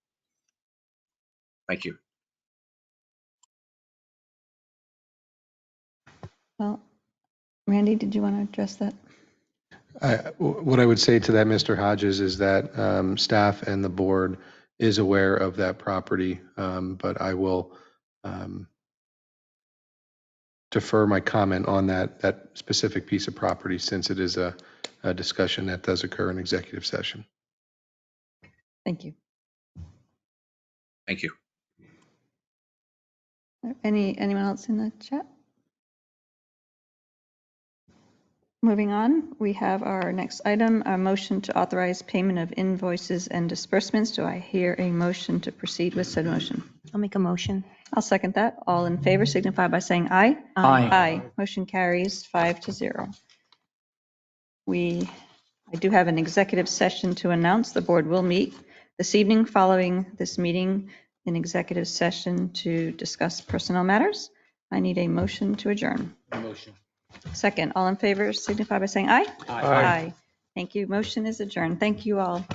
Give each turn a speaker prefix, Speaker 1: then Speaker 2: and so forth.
Speaker 1: Thank you.
Speaker 2: Well, Randy, did you want to address that?
Speaker 3: I- What I would say to that, Mr. Hodges, is that um, staff and the board is aware of that property, um, but I will um, defer my comment on that, that specific piece of property since it is a a discussion that does occur in executive session.
Speaker 2: Thank you.
Speaker 1: Thank you.
Speaker 2: Any, anyone else in the chat? Moving on, we have our next item, a motion to authorize payment of invoices and disbursements. Do I hear a motion to proceed with said motion?
Speaker 4: I'll make a motion.
Speaker 2: I'll second that. All in favor signify by saying aye.
Speaker 4: Aye.
Speaker 2: Aye. Motion carries five to zero. We, I do have an executive session to announce. The board will meet this evening following this meeting in executive session to discuss personnel matters. I need a motion to adjourn.
Speaker 5: Motion.
Speaker 2: Second, all in favor signify by saying aye.
Speaker 5: Aye.
Speaker 2: Aye. Thank you. Motion is adjourned. Thank you all.